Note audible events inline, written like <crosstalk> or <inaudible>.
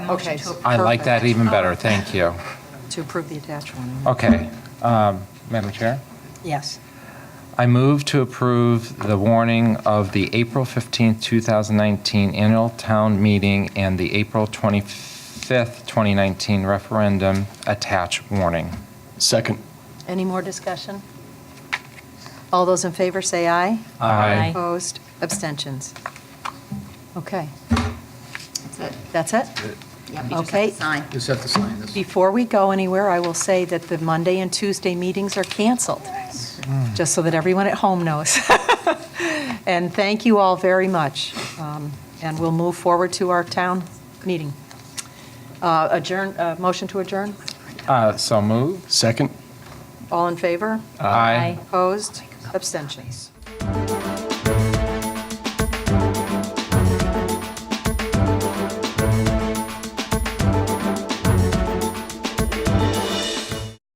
motion Okay. to approve. I I like that even better, Oh. thank you. To approve the attached one. Okay, um, Madam Chair? Yes. I move to approve the warning of the April 15, 2019 annual town meeting and the April 25th, 2019 referendum attach warning. Second. Any more discussion? All those in favor say aye. Aye. Opposed, abstentions. Okay, That's it. that's it? Yep, you just have Okay. to sign. Just have to sign this. Before we go anywhere, I will say that the Monday and Tuesday meetings are canceled, just so that everyone at home knows. <laughs> And thank you all very much. Um, And we'll move forward to our town meeting. Uh, Adjourn, uh, motion to adjourn? Uh, So moved. Second. All in favor? Aye. Opposed? Abstentions?